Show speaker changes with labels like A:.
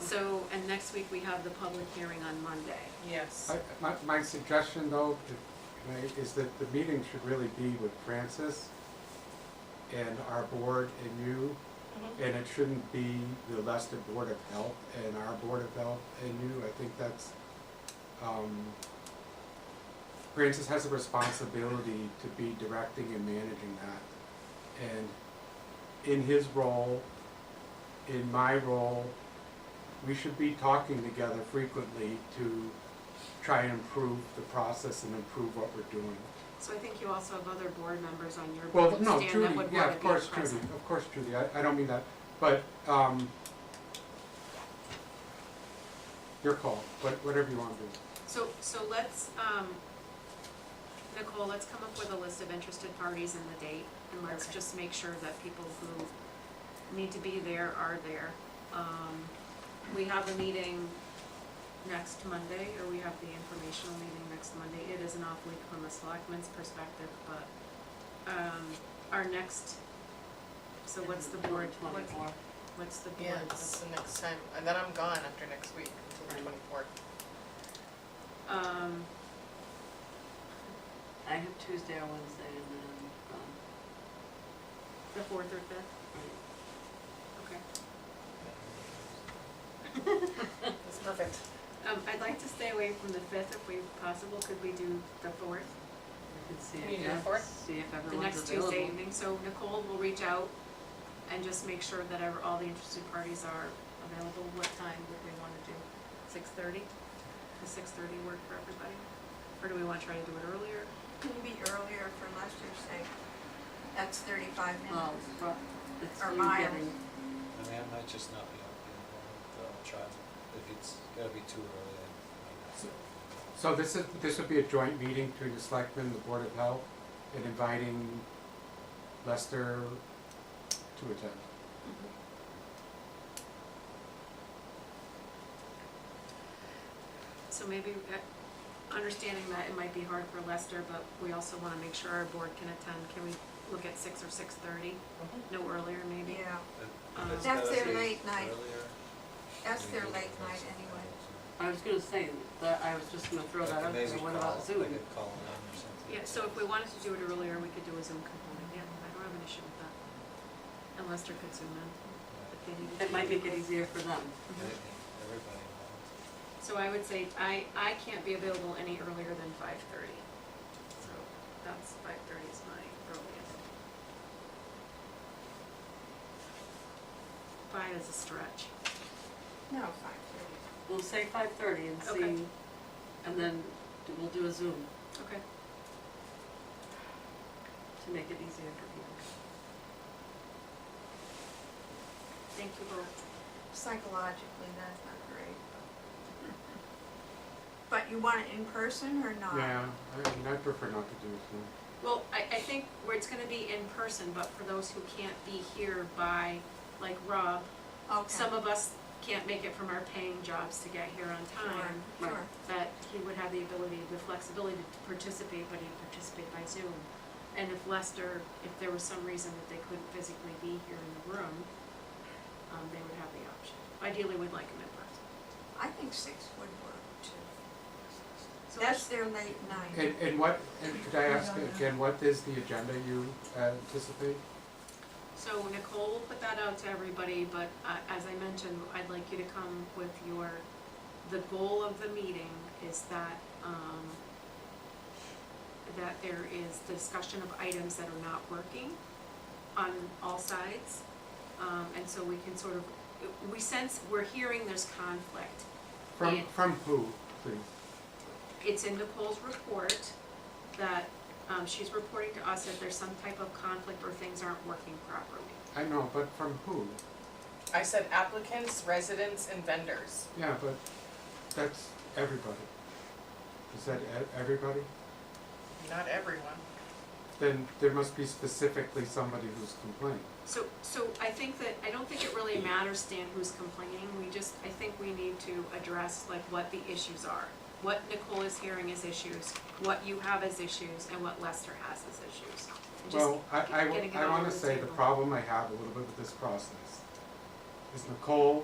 A: So, and next week we have the public hearing on Monday.
B: Yes.
C: I- My, my suggestion though, if- is that the meeting should really be with Francis and our board and you, and it shouldn't be the Leicester Board of Health and our Board of Health and you. I think that's, um, Francis has a responsibility to be directing and managing that. And in his role, in my role, we should be talking together frequently to try and improve the process and improve what we're doing.
A: So I think you also have other board members on your
C: Well,
A: board,
C: no,
A: Stan,
C: Judy,
A: that would
C: yeah,
A: want
C: of
A: to be
C: course, Judy,
A: present.
C: of course, Judy, I, I don't mean that, but, um, your call, what, whatever you want to do.
A: So, so let's, um, Nicole, let's come up with a list of interested parties and the date, and let's
B: Okay.
A: just make sure that people who need to be there are there. Um, we have a meeting next Monday, or we have the informational meeting next Monday. It is an off week from a selectman's perspective, but, um, our next, so what's the board, what's,
D: Twenty-four.
A: what's the board?
B: Yeah, that's the next time, and then I'm gone after next week, until the twenty-fourth.
A: Um,
D: I have Tuesday or Wednesday and then, um,
A: the fourth or fifth, okay.
B: That's perfect.
A: Um, I'd like to stay away from the fifth if we possible, could we do the fourth,
D: I can see
B: Can you
D: if,
B: do the fourth?
D: see if
A: the
D: everyone's
A: next
D: available.
A: Tuesday evening, so Nicole will reach out and just make sure that ever, all the interested parties are available, what time would we wanna do? Six thirty? Does six thirty work for everybody? Or do we wanna try to do it earlier?
E: Can be earlier for Lester's sake. That's thirty-five
A: Oh,
D: Well, Um,
E: minutes.
D: but it's
E: Or
D: you
E: miles.
D: getting,
F: I mean, I might just not be able to be with the child, if it's gotta be too early, then I might not.
E: Uh,
C: So this is, this would be a joint meeting between the selectmen and the Board of Health, and inviting Lester to attend.
A: So maybe, uh, understanding that it might be hard for Lester, but we also wanna make sure our board can attend, can we look at six or six thirty? No earlier maybe?
E: Yeah,
F: But
A: Um,
F: it's
E: That's
F: gotta
E: their
F: be
E: late night.
F: earlier.
E: that's
F: We
E: their
F: can do
E: late
F: it
E: night
F: first.
E: anyway.
D: I was gonna say, that, I was just gonna throw that out there,
F: Maybe
D: what
F: call-
D: about Zoom?
F: I could call it on or something.
A: Yeah, so if we wanted to do it earlier, we could do a Zoom component, yeah, I don't have an issue with that. And Lester could zoom in if they needed to.
D: It might make it easier for them.
F: Yeah, I think Everybody involved.
A: So I would say, I, I can't be available any earlier than five thirty. So that's, five thirty is my earliest. Five is a stretch.
E: No, five thirty.
D: We'll say five thirty and
A: Okay.
D: see, and then do- we'll do a Zoom
A: Okay.
D: to make it easier for people.
A: Thank you both.
E: Psychologically, that's not great. But you want it in person or
A: Ah.
E: not?
C: Yeah, I mean, I prefer not to do it,
A: Well, I, I think where it's gonna be in person, but for those who can't be here by, like Rob, some
E: Okay,
A: of us can't make it from our paying jobs to get here on
E: sure,
A: time,
E: sure.
A: that he would have the ability, the flexibility to participate, but he'd participate by Zoom. And if Lester, if there was some reason that they couldn't physically be here in the room, um, they would have the option. Ideally, we'd like him in person.
E: I think six would work too.
A: So
E: That's
A: let's,
E: their late
C: no.
E: night.
C: And, and what, and could I ask again, what is the agenda you uh, anticipate?
A: so Nicole will put that out to everybody, but, uh, as I mentioned, I'd like you to come with your, the goal of the meeting is that, um, that there is discussion of items that are not working on all sides. Um, and so we can sort of, we sense, we're hearing there's conflict.
C: From,
A: Yeah.
C: from who, please?
A: It's in Nicole's report that, um, she's reporting to us that there's some type of conflict or things aren't working properly.
C: I know, but from who?
B: I said applicants, residents, and vendors.
C: Yeah, but that's everybody. Is that e- everybody?
B: Not everyone.
C: Then there must be specifically somebody who's complaining.
A: So, so I think that, I don't think it really matters, Stan, who's complaining, we just, I think we need to address like what the issues are. What Nicole is hearing as issues, what you have as issues, and what Lester has as issues. And just
C: Well, I,
A: get-
C: I,
A: getting it
C: I
A: all on
C: wanna
A: the
C: say the
A: table.
C: problem I have a little bit with this process is Nicole